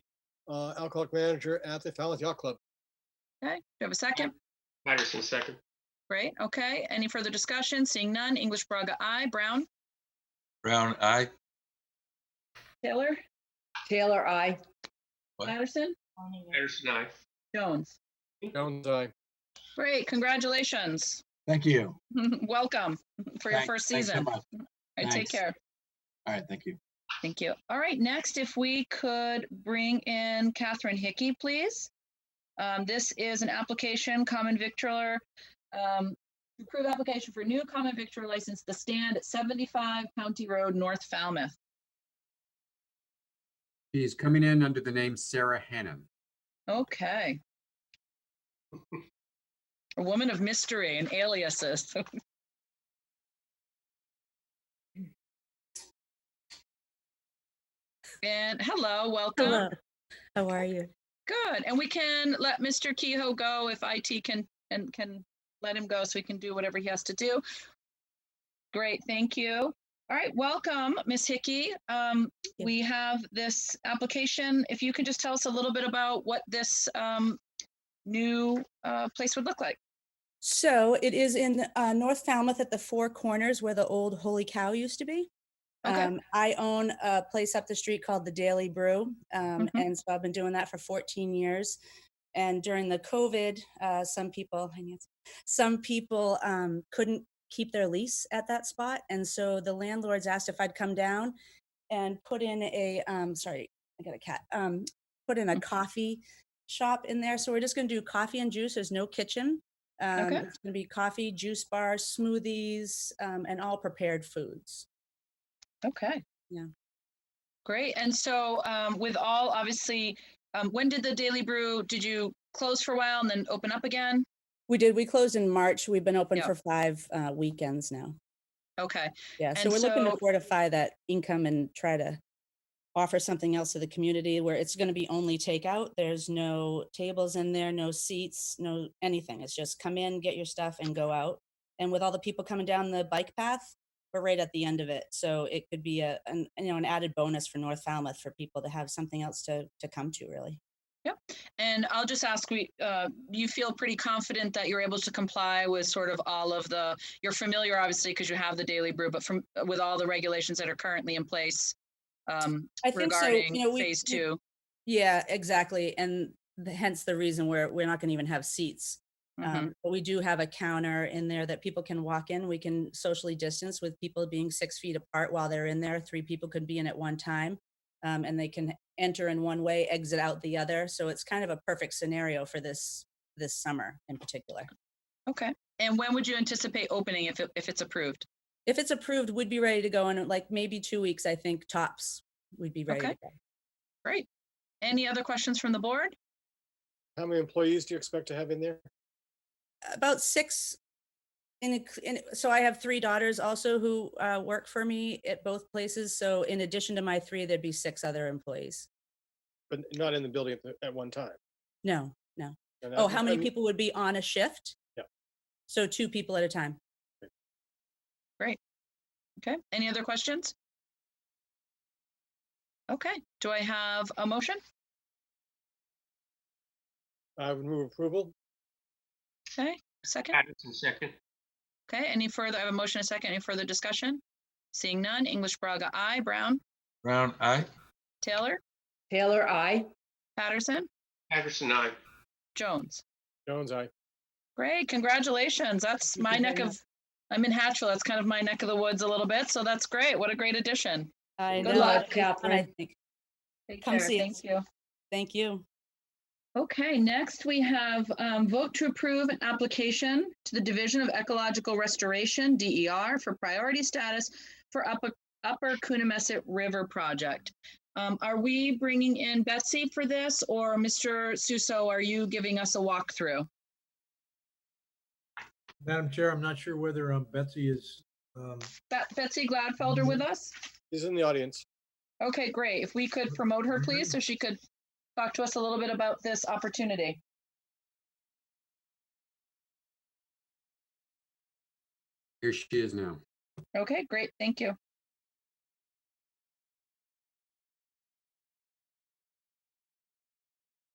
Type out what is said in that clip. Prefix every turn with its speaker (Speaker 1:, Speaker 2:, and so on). Speaker 1: uh, alcoholic manager at the Falmouth Yacht Club.
Speaker 2: Okay, do you have a second?
Speaker 3: Patterson, second.
Speaker 2: Great, okay. Any further discussion? Seeing none, English Braga, aye. Brown?
Speaker 4: Brown, aye.
Speaker 2: Taylor?
Speaker 5: Taylor, I.
Speaker 4: What?
Speaker 2: Patterson?
Speaker 3: Patterson, aye.
Speaker 2: Jones?
Speaker 1: Jones, aye.
Speaker 2: Great, congratulations.
Speaker 6: Thank you.
Speaker 2: Welcome for your
Speaker 6: Thank-
Speaker 2: first
Speaker 6: thanks so
Speaker 2: season.
Speaker 6: much.
Speaker 2: All right, take
Speaker 6: Thanks.
Speaker 2: care.
Speaker 6: All right, thank you.
Speaker 2: Thank you. All right, next, if we could bring in Catherine Hickey, please. Um, this is an application, common victular, um, to approve application for new common victular license, The Stand at 75 County Road, North Falmouth.
Speaker 7: She's coming in under the name Sarah Hannon.
Speaker 2: Okay. A woman of mystery and aliases. And hello, welcome.
Speaker 8: Hello. How are you?
Speaker 2: Good, and we can let Mr. Kehoe go if IT can, and can let him go so he can do whatever he has to do. Great, thank you. All right, welcome, Ms. Hickey. Um,
Speaker 8: you.
Speaker 2: we have this application. If you can just tell us a little bit about what this, um, new, uh, place would look like.
Speaker 8: So it is in uh, North Falmouth at the Four Corners where the old Holy Cow used to be.
Speaker 2: Okay.
Speaker 8: Um, I own a place up the street called the Daily Brew.
Speaker 2: Mhm.
Speaker 8: Um, And so I've been doing that for 14 years. And during the COVID, uh, some people, hi, Nancy. some people um, couldn't keep their lease at that spot. And so the landlords asked if I'd come down and put in a, um, sorry, I got a cat, um, put in a
Speaker 2: Mhm.
Speaker 8: coffee shop in there. So we're just going to do coffee and juice. There's no kitchen. Um,
Speaker 2: Okay.
Speaker 8: It's going to be coffee, juice bar, smoothies, um, and all prepared foods.
Speaker 2: Okay.
Speaker 8: Yeah.
Speaker 2: Great, and so, um, with all, obviously, um, when did the Daily Brew, did you close for a while and then open up again?
Speaker 8: We did. We closed in March. We've been open
Speaker 2: Yeah.
Speaker 8: for five uh, weekends now.
Speaker 2: Okay,
Speaker 8: Yeah. So
Speaker 2: And
Speaker 8: we're looking
Speaker 2: so-
Speaker 8: to fortify that income and try to offer something else to the community where it's going to be only takeout. There's no tables in there, no seats, no anything. It's just come in, get your stuff, and go out. And with all the people coming down the bike path, we're right at the end of it. So it could be a an, you know an added bonus for North Falmouth for people to have something else to to come to really.
Speaker 2: And I'll just ask, we, uh, you feel pretty confident that you're able to comply with sort of all of the, you're familiar obviously because you have the daily brew, but from, with all the regulations that are currently in place um,
Speaker 8: I think so.
Speaker 2: regarding
Speaker 8: You know, we,
Speaker 2: phase
Speaker 8: we-
Speaker 2: two?
Speaker 8: Yeah, exactly. And the- hence the reason we're, we're not going to even have seats.
Speaker 2: Mhm.
Speaker 8: Um, but we do have a counter in there that people can walk in. We can socially distance with people being six feet apart while they're in there. Three people could be in at one time. Um, and they can enter in one way, exit out the other. So it's kind of a perfect scenario for this, this summer in particular.
Speaker 2: Okay. And when would you anticipate opening if, it- if it's approved?
Speaker 8: If it's approved, we'd be ready to go in like maybe two weeks, I think tops, we'd be ready
Speaker 2: Okay.
Speaker 8: to go.
Speaker 2: Great. Any other questions from the board?
Speaker 1: How many employees do you expect to have in there?
Speaker 8: about six in, a c- in a- so i have three daughters also who uh, work for me at both places so in addition to my three there'd be six other employees
Speaker 1: But not in the building at, the, at one time.
Speaker 8: no no
Speaker 1: And
Speaker 8: oh
Speaker 1: I-
Speaker 8: how
Speaker 1: I
Speaker 8: many
Speaker 1: mean,
Speaker 8: people would be on a shift
Speaker 1: Yep.
Speaker 8: so two people at a time
Speaker 2: Okay. Any other questions? Okay. Do I have a motion?
Speaker 1: I would move approval.
Speaker 2: Okay. Second?
Speaker 3: Patterson, second.
Speaker 2: Okay, any further, I have a motion, and a second, any further discussion? Seeing none, English Braga, I. Brown,
Speaker 4: Brown, aye.
Speaker 2: Taylor,
Speaker 5: Taylor, I.
Speaker 2: Patterson,
Speaker 3: Patterson, aye.
Speaker 2: Jones.
Speaker 1: Jones, aye.
Speaker 2: Great, congratulations, that's
Speaker 5: Thank
Speaker 2: my
Speaker 5: you
Speaker 2: neck
Speaker 5: very
Speaker 2: of, I'm in Hatchville, that's kind of my neck of the woods a little bit, so that's great, what a great addition.
Speaker 8: i
Speaker 2: Good
Speaker 8: know,
Speaker 2: luck,
Speaker 8: it's gonna be fun, i
Speaker 5: Catherine.
Speaker 8: think Come
Speaker 2: Come
Speaker 8: care. see
Speaker 2: see
Speaker 8: us.
Speaker 2: Thank you.
Speaker 8: thank you
Speaker 2: Okay, next we have um, vote to approve an application to the Division of Ecological Restoration, DER, for priority status for Upper Upper Coonamessett River Project. Um, Are we bringing in Betsy for this, or Mr. Suso, are you giving us a walkthrough?
Speaker 9: Madam Chair, I'm not sure whether um, Betsy is, um,
Speaker 2: Bet- Betsy Gladfelder with us?
Speaker 1: He's in the audience.
Speaker 2: Okay, great. If we could promote her, please, so she could talk to us a little bit about this opportunity.
Speaker 7: Here she is now.
Speaker 2: Okay, great, thank you.